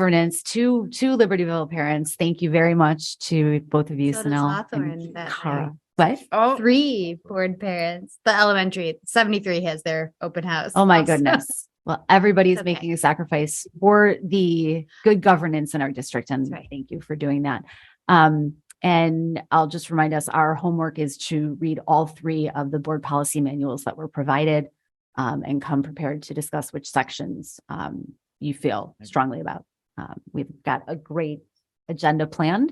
governance to to Libertyville parents. Thank you very much to both of you, So does Sanel and Hawthorne that Cara. night. What? Oh, Three board parents, the elementary, 73 has their open house. Oh my also. goodness. Well, everybody's It's okay. making a sacrifice for the good governance in our district. And That's right. thank you for doing that. Um, and I'll just remind us our homework is to read all three of the board policy manuals that were provided um, and come prepared to discuss which sections um, you feel strongly about. Um, we've got a great agenda planned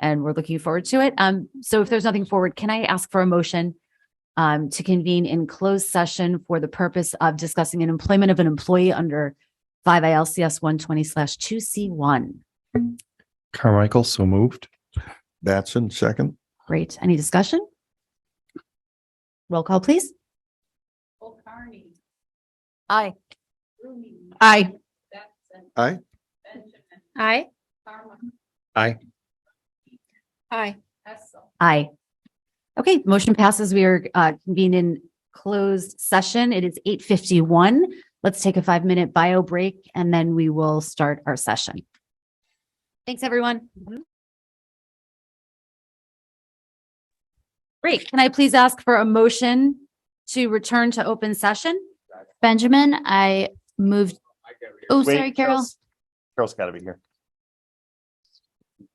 and we're looking forward to it. Um, so if there's nothing forward, can I ask for a motion um, to convene in closed session for the purpose of discussing an employment of an employee under five ILCS one twenty slash two C one? Carmichael, so moved. Batson, second. Great. Any discussion? Roll call, please. Aye. aye. Aye. Aye. Aye. Aye. Aye. Okay, motion passes. We are uh, convened in closed session. It is eight fifty-one. Let's take a five-minute bio break and then we will start our session. Thanks, everyone. Great. Can I please ask for a motion to return to open session? Benjamin, I moved. Oh, Wait, sorry, Carol. Carol's- Carol's got to be here.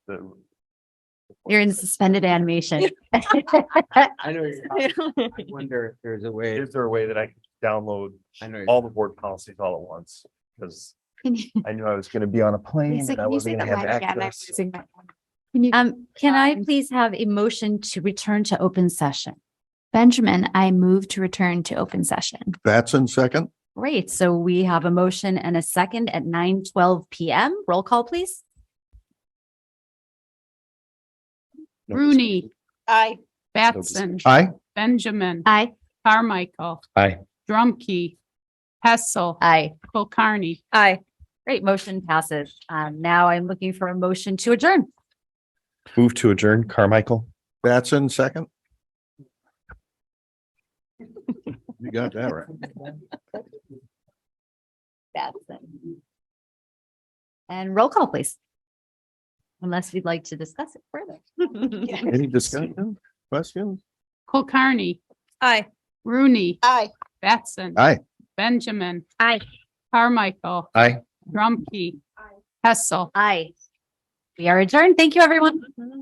The- You're in suspended animation. I know, you're not- I wonder if there's a way, Is there a way that I can download I know. all the board policies all at once? Because Can you- I knew I was going to be on a plane Lisa, and I can you say wasn't that going to have loud again? I'm access. losing my- Can you- Um, can I please have a motion to return to open session? Benjamin, I moved to return to open session. Batson, second. Great. So we have a motion and a second at nine twelve PM. Roll call, please. No discussion. Rooney, Aye. Batson, Aye. Benjamin, Aye. Carmichael. Aye. Drumkey, Hessel, Aye. Colcarney. Aye. Great. Motion passes. Um, now I'm looking for a motion to adjourn. Move to adjourn, Carmichael. Batson, second. You got that right. Batson. And roll call, please. Unless we'd like to discuss it further. Any discussion, questions? Colcarney, Aye. Rooney, Aye. Batson. Aye. Benjamin. Aye. Carmichael, Aye. Drumkey. Hessel. Aye. We are adjourned. Thank you, everyone.